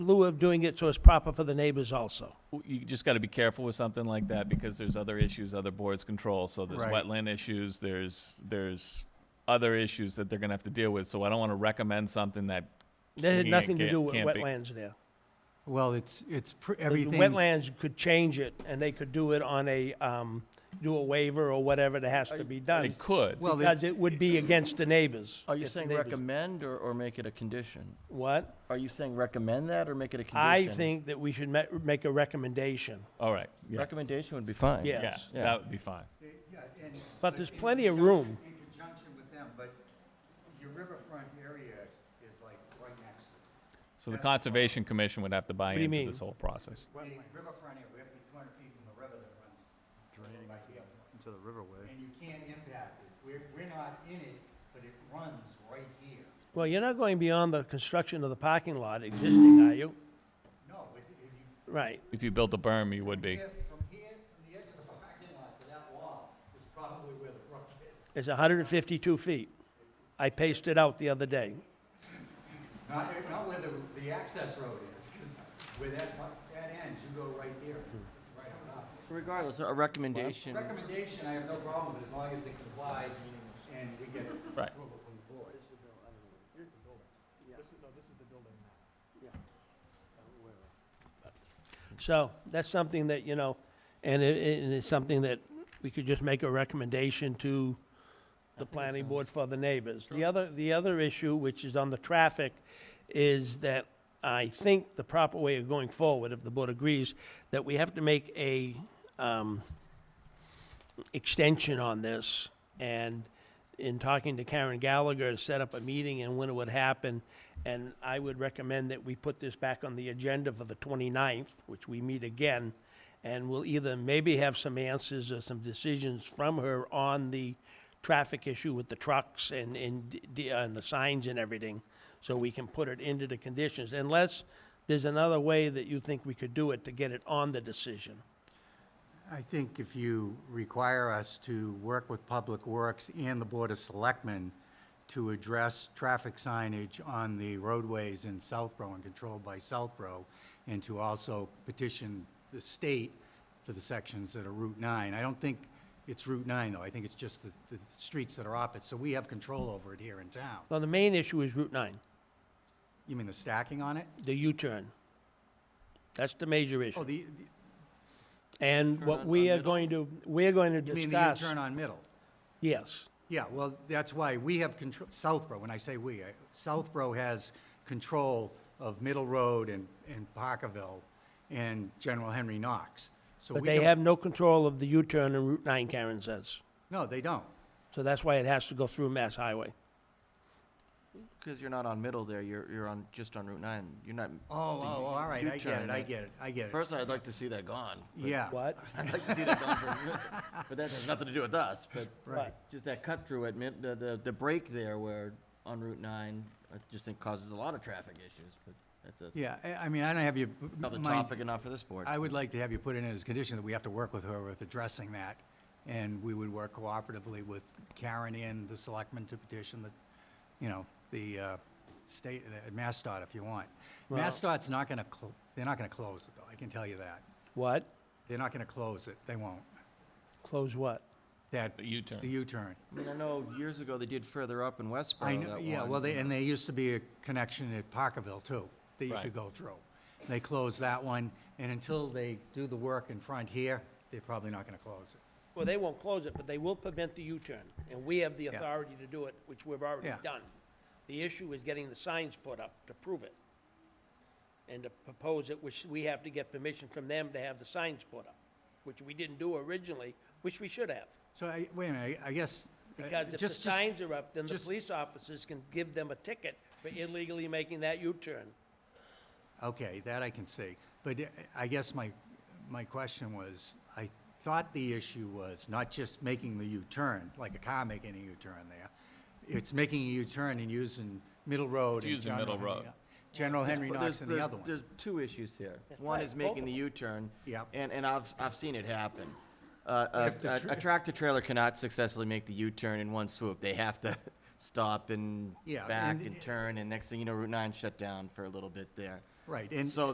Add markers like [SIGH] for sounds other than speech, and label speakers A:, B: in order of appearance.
A: lieu of doing it so it's proper for the neighbors also.
B: you just got to be careful with something like that because there's other issues other boards control. So there's
C: Right.
B: wetland issues, there's, there's other issues that they're going to have to deal with. So I don't want to recommend something that.
A: That had
B: can't-
A: nothing to
B: can't-
A: do with
B: can't be-
A: wetlands there.
C: Well, it's, it's pr-
A: The
C: everything.
A: Wetlands could change it, and they could do it on a, um, do a waiver or whatever that has to be done.
B: It could.
C: Well,
A: Because
C: it's-
A: it would be against the neighbors.
D: Are you
A: if the
D: saying
A: neighbors-
D: recommend or, or make it a condition?
A: What?
D: Are you saying recommend that or make it a
A: I
D: condition?
A: think that we should ma- make a recommendation.
B: All right. Yeah.
D: Recommendation would be fine.
A: Yeah.
B: Yeah,
A: Yes.
B: that would be fine.
A: But there's plenty of room.
E: In conjunction with them, but your riverfront area is like right next to it.
B: So the Conservation Commission would have to buy
A: What do you
B: into
A: mean?
B: this whole process.
E: The riverfront area, we have to be two hundred feet from the river that runs right here.
F: into the riverway.
E: And you can't impact it. We're, we're not in it, but it runs right here.
A: Well, you're not going beyond the construction of the parking lot existing, are you?
E: No, but if you,
A: Right.
B: If you built a berm, you would be.
E: here- from here, from the edge of the parking lot to that wall is probably where the brook is.
A: It's 152 feet. I paced it out the other day.
E: Not, eh, not where the, the access road is, because where that, part- that ends, you go right there. It's Right on up.
D: So Regardless, a recommendation,
E: Recommendation, I have no problem with, as long as it complies and we get
B: Right.
E: approval from the board.
A: So that's something that, you know, and it- it, and it's something that we could just make a recommendation to the planning board for the neighbors. The other, the other issue, which is on the traffic, is that I think the proper way of going forward, if the board agrees, that we have to make a, um, extension on this. And in talking to Karen Gallagher, set up a meeting and when it would happen. And I would recommend that we put this back on the agenda for the 29th, which we meet again. And we'll either maybe have some answers or some decisions from her on the traffic issue with the trucks and, and, d- d- uh, and the signs and everything. So we can put it into the conditions unless there's another way that you think we could do it to get it on the decision.
F: I think if you require us to work with Public Works and the Board of Selectmen to address traffic signage on the roadways in Southborough and controlled by Southborough, and to also petition the state for the sections that are Route 9. I don't think it's Route 9, though. I think it's just the, the streets that are off it, so we have control over it here in town.
A: Well, the main issue is Route 9.
F: You mean the stacking on it?
A: the U-turn. That's the major
F: Oh,
A: issue.
F: the,
A: And
D: Turn
A: what
D: on-
A: we
D: on
A: are
D: Middle?
A: going to, we're going to
F: the- you mean the
A: discuss,
F: U-turn on Middle?
A: yes,
F: Yeah, well, that's why we have control, Southborough, when I say we, I- Southborough has control of Middle Road and, and Parkerville and General Henry Knox. So
A: but
F: we
A: they
F: don't-
A: have no control of the U-turn and Route 9, Karen says.
F: No, they don't.
A: So that's why it has to go through Mass Highway.
D: because you're not on middle there, you're, you're on, just on Route 9. You're not.
F: Oh, oh, oh, all right, I get
D: U-turn,
F: it, I
D: yeah.
F: get it, I get it.
D: Personally, I'd like to see that gone. but-
F: Yeah.
A: What?
D: [LAUGHS] I'd like to see that gone from
A: [LAUGHS]
D: here, but that has nothing to do with us, but.
A: Right.
D: Just that cut through at mid, the, the, the break there where on Route 9, I just think causes a lot of traffic issues, but that's a,
F: Yeah, I, I mean, I don't have you.
D: another
F: mind-
D: topic and not for this board.
F: I would like to have you put in as a condition that we have to work with her with addressing that. And we would work cooperatively with Karen and the selectmen to petition the, you know, the uh, state, uh, MassDOT if you want. MassDOT's not going to, they're not going to close it though, I can tell you that.
A: What?
F: They're not going to close it, they won't.
A: Close what?
F: That,
B: The U-turn.
F: the U-turn.
D: I mean, I know years ago they did further up in
F: I
D: Westboro,
F: know,
D: Oh, that
F: yeah,
D: one.
F: well, they, and there used to be a connection at Parkerville too, that you
B: Right.
F: could go through. They closed that one, and until they do the work in front here, they're probably not going to close it.
A: Well, they won't close it, but they will prevent the U-turn, and we have the
F: Yeah.
A: authority to do it, which we've already
F: Yeah.
A: done. The issue is getting the signs put up to prove it, and to propose it, which we have to get permission from them to have the signs put up, which we didn't do originally, which we should have.
F: So I, wait a minute, I I guess. uh,
A: Because if the
F: just- just-
A: signs are up, then the
F: just-
A: police officers can give them a ticket for illegally making that U-turn.
F: Okay, that I can see. But I- I guess my, my question was, I thought the issue was not just making the U-turn, like a car making a U-turn there. It's making a U-turn and using Middle Road. and
B: Using
F: General
B: Middle
F: Henry-
B: Road.
F: General Henry
D: Well,
F: Knox
D: there's-
F: and the
D: there's-
F: other one.
D: There's two issues here. One
A: right,
D: is
A: both
D: making
A: of
D: the U-turn.
F: Yep.
D: And, and I've, I've seen it happen. Uh, A a- a tractor trailer cannot successfully make the U-turn in one swoop. They have to [LAUGHS] stop and
F: Yeah,
D: back
F: and-
D: and turn, and next thing you know, Route 9 shut down for a little bit there.
F: Right, and
D: So